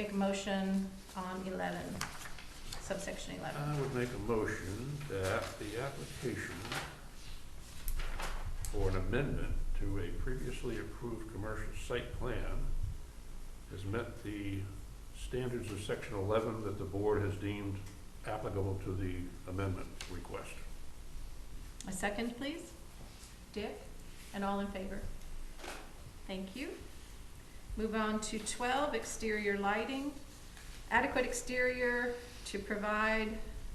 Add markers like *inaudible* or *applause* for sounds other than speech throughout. Make a motion on eleven, subsection eleven. I would make a motion that the application for an amendment to a previously approved commercial site plan has met the standards of section eleven that the board has deemed applicable to the amendment request. A second, please? Dick? And all in favor? Thank you. Move on to twelve, exterior lighting. Adequate exterior to provide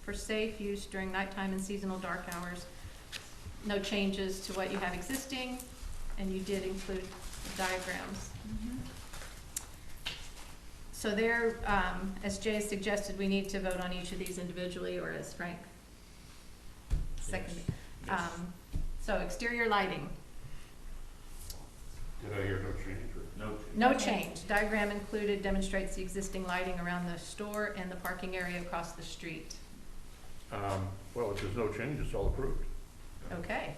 for safe use during nighttime and seasonal dark hours. No changes to what you have existing, and you did include diagrams. So there, um, as Jay suggested, we need to vote on each of these individually, or as Frank seconded. Um, so exterior lighting, Did I hear no change or? No. no change. Diagram included demonstrates the existing lighting around the store and the parking area across the street. Um, well, if there's no change, it's all approved. Okay.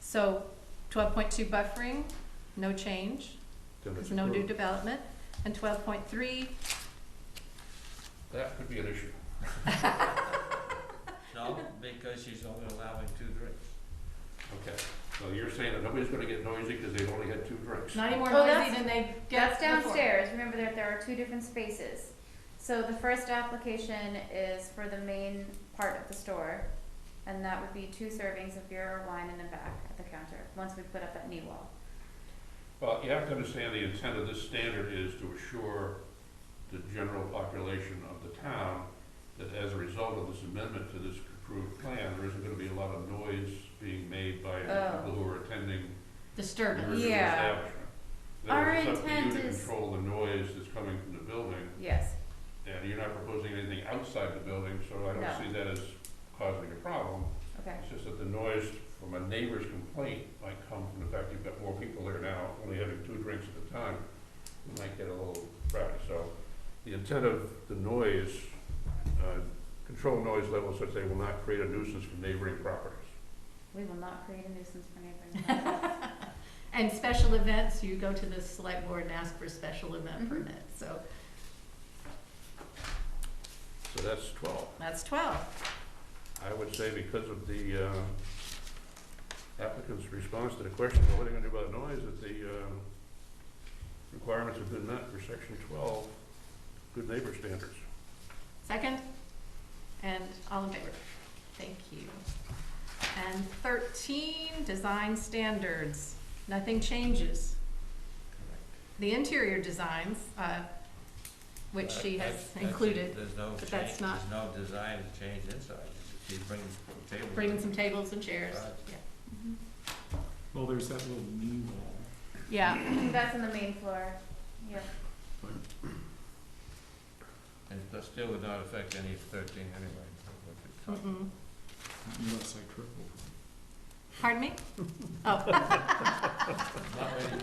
So twelve point two buffering, no change, Then it's there's no new approved. development. And twelve point three, That could be an issue. No, because she's only allowing two drinks. Okay, so you're saying that nobody's gonna get noisy because they've only had two drinks? not any more Oh, noisy that's- than they get That's before. downstairs, remember that there are two different spaces. So the first application is for the main part of the store, and that would be two servings of beer or wine in the back at the counter, once we put up that knee wall. Well, you have to understand the intent of this standard is to assure the general population of the town that as a result of this amendment to this approved plan, there isn't gonna be a lot of noise being made by the Oh. people who are attending the Disturbance. original Yeah. establishment. In other Our words, it's up to you intent to is- control the noise that's coming from the building, Yes, and you're not proposing anything outside the building, so I No. don't see that as causing a problem. okay, It's just that the noise from a neighbor's complaint might come from the fact you've got more people there now, only having two drinks at a time. It might get a little rowdy, so the intent of the noise, uh, control noise levels such they will not create a nuisance for neighboring properties. we will not create a nuisance for *laughs* neighboring. And special events, you go to the select board and ask for a special event Mhm. permit, so So that's twelve. that's twelve. I would say because of the uh, applicant's response to the question, well, what are you gonna do about noise, that the uh, requirements have been met for section twelve, good neighbor standards. Second? And all in favor? Thank you. And thirteen, design standards. Nothing changes. The interior designs, uh, which she That- has Uh, that's- that's- included, There's no but change, that's there's not- no design change inside. She brings tables. bringing some tables and chairs. Right. Mm-hmm. Well, there's that little knee wall. Yeah, Yeah. *coughs* That's in the main floor, yeah. And that still would not affect any of thirteen anyway. so what it's not- Mm-mm. Unless I trip over. Pardon *laughs* me? Oh. Not many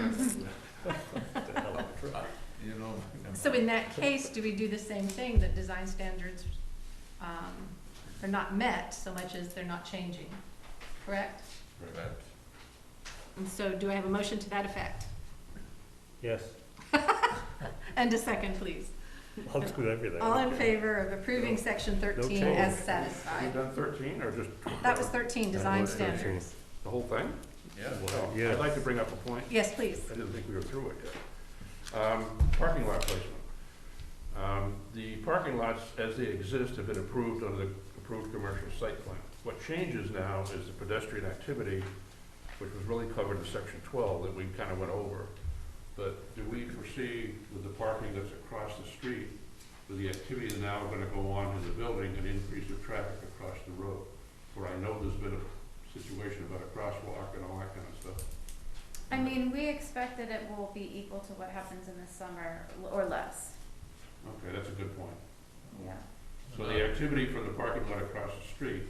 Mm-hmm. people. *laughs* You know. So in that case, do we do the same thing, that design standards um, are not met so much as they're not changing, correct? Correct. And so do I have a motion to that effect? Yes. And a second, please. I'll do everything. All in favor of approving section thirteen as change. You satisfied? done thirteen, or just? That was thirteen, design was 13. standards. The whole thing? Yeah. Well, I'd like to bring up a point. Yes, please. I didn't think we were through it yet. Um, Parking lot placement. Um, The parking lots, as they exist, have been approved under the approved commercial site plan. What changes now is the pedestrian activity, which was really covered in section twelve that we kind of went over. But do we foresee with the parking that's across the street, with the activity that's now going to go on in the building, an increase of traffic across the road? Where I know there's been a situation about a crosswalk and all that kind of stuff. I mean, we expect that it will be equal to what happens in the summer, or less, Okay, that's a good point. yeah. So the activity from the parking lot across the street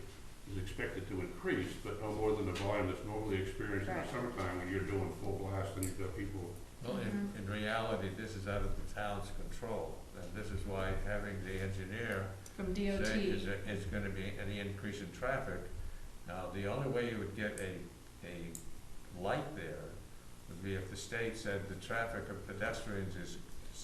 is expected to increase, but no more than the volume that's normally experienced in the Right. summertime when you're doing full blast and you've got people. Well, in, in reality, this is out of the town's control, and this is why having the engineer From say DOT. is, there- is gonna be any increase in traffic. Now, the only way you would get a, a light there would be if the state said the traffic of pedestrians is